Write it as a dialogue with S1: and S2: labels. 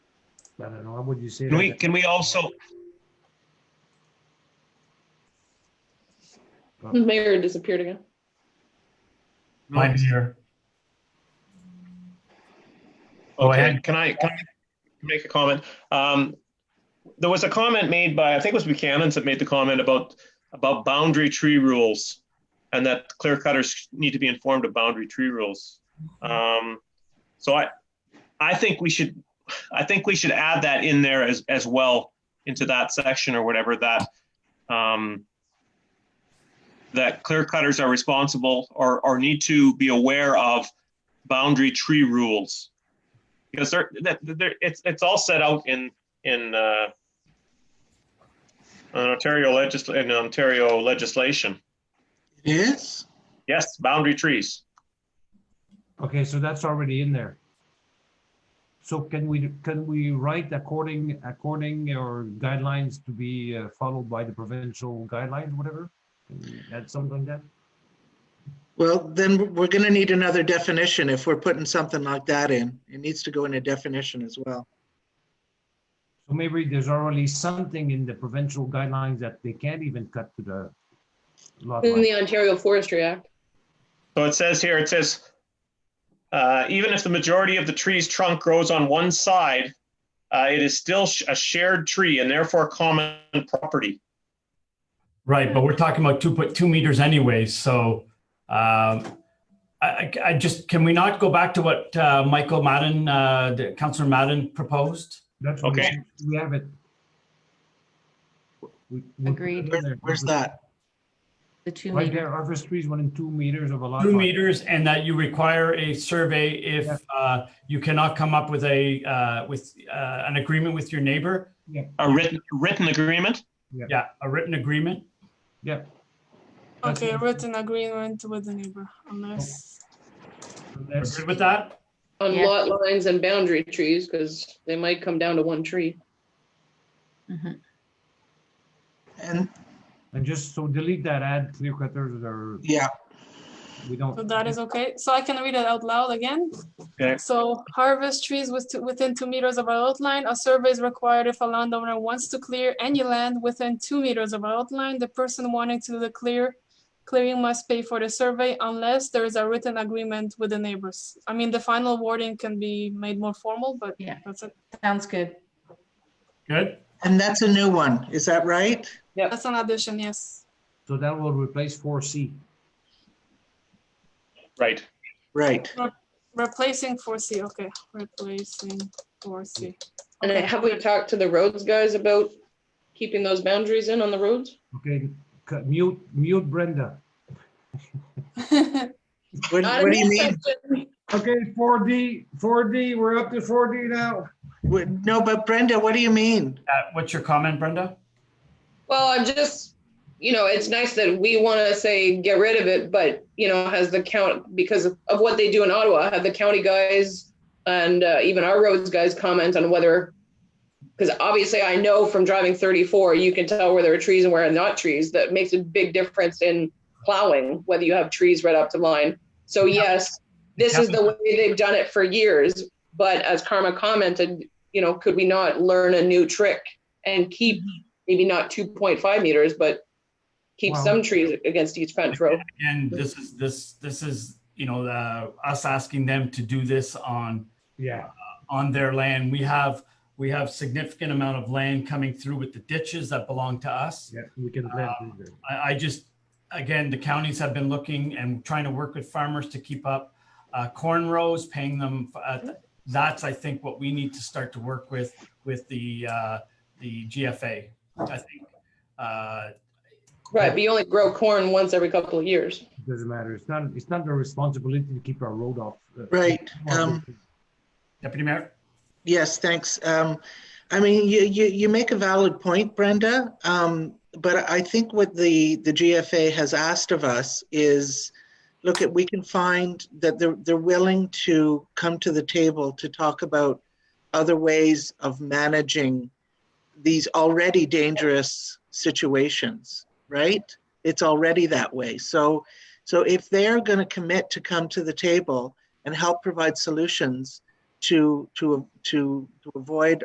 S1: I don't know, I wouldn't use it.
S2: Can we, can we also,
S3: Mayor disappeared again.
S4: Mine's here.
S2: Go ahead. Can I, can I make a comment? Um, there was a comment made by, I think it was Buchanan's that made the comment about, about boundary tree rules. And that clear cutters need to be informed of boundary tree rules. Um, so I, I think we should, I think we should add that in there as, as well into that section or whatever that, um, that clear cutters are responsible or, or need to be aware of boundary tree rules because they're, that, they're, it's, it's all set out in, in, uh, in Ontario legisl, in Ontario legislation.
S4: It is?
S2: Yes, boundary trees.
S1: Okay, so that's already in there. So can we, can we write according, according or guidelines to be uh, followed by the provincial guidelines, whatever? Can we Add something like that?
S4: Well, then we're gonna need another definition if we're putting something like that in. It needs to go in a definition as well.
S1: So maybe there's already something in the provincial guidelines that they can't even cut to the
S4: Oh,
S1: lot
S3: In
S1: line.
S3: the Ontario Forestry Act.
S2: So it says here, it says, uh, even if the majority of the tree's trunk grows on one side, uh, it is still sh- a shared tree and therefore common property.
S5: Right, but we're talking about two point two meters anyway, so um, I, I, I just, can we not go back to what uh, Michael Madden, uh, the- Councillor Madden proposed?
S1: That's what
S2: Okay.
S1: We have it. We- we put it
S6: Agreed.
S1: in
S4: Where-
S1: there.
S4: Where's that?
S6: The two
S1: Right
S6: meter.
S1: there, harvest trees within two meters of a lot.
S5: Two
S1: line.
S5: meters and that you require a survey if
S1: Yeah.
S5: uh, you cannot come up with a, uh, with uh, an agreement with your neighbor?
S2: A written, written agreement?
S5: Yeah, a written agreement?
S1: Yeah. That's
S7: Okay,
S1: it.
S7: written agreement with the neighbor, unless,
S5: We're
S1: That's-
S5: good with that?
S3: on
S6: Yeah.
S3: lot lines and boundary trees, because they might come down to one tree.
S6: Mhm.
S4: And,
S1: And just so delete that, add clear cutters or
S4: yeah,
S1: we don't.
S7: so that is okay. So I can read it out loud again.
S2: Okay.
S7: So harvest trees with, two- within two meters of our outline. A survey is required if a landowner wants to clear any land within two meters of our outline. The person wanting to do the clear, clearing must pay for the survey unless there is a written agreement with the neighbors. I mean, the final wording can be made more formal, but
S6: Yeah.
S7: that's it.
S6: Sounds good.
S5: Good?
S4: and that's a new one. Is that right?
S7: That's an addition, yes.
S1: So that will replace four C.
S2: Right.
S4: Right.
S7: Replacing four C, okay, replacing four C.
S3: And
S7: Okay.
S3: have we talked to the roads guys about keeping those boundaries in on the roads?
S1: Okay, cut- mute, mute Brenda.
S4: What
S3: Not
S4: what do
S3: in
S4: you
S3: this
S4: mean?
S3: section.
S1: Okay, four D, four D, we're up to four D now.
S4: What- No, but Brenda, what do you mean?
S5: Uh, What's your comment, Brenda?
S3: Well, I'm just, you know, it's nice that we want to say get rid of it, but, you know, has the count, because of of what they do in Ottawa, have the county guys and uh, even our roads guys comment on whether, because obviously I know from driving 34, you can tell where there are trees and where are not trees. That makes a big difference in plowing, whether you have trees right up to line. So yes, this is the way they've done it for years. But as Karma commented, you know, could we not learn a new trick and keep maybe not 2.5 meters, but keep
S1: Wow.
S3: some trees against each fence row?
S5: And this is, this, this is, you know, uh, us asking them to do this on
S1: Yeah,
S5: on their land. We have, we have significant amount of land coming through with the ditches that belong to us.
S1: yeah, we can blend it there.
S5: I, I just, again, the counties have been looking and trying to work with farmers to keep up uh, corn rows, paying them. uh, That's, I think, what we need to start to work with, with the, uh, the GFA. I think, uh,
S3: Right, but you only grow corn once every couple of years.
S1: It Doesn't matter. It's not, it's not their responsibility to keep our road off. uh,
S4: Right, um,
S5: Deputy Mayor?
S4: Yes, thanks. Um, I mean, you, you, you make a valid point, Brenda. Um, but I think what the, the GFA has asked of us is, look at, we can find that they're, they're willing to come to the table to talk about other ways of managing these already dangerous situations, right? It's already that way. So, so if they're going to commit to come to the table and help provide solutions, to to to to avoid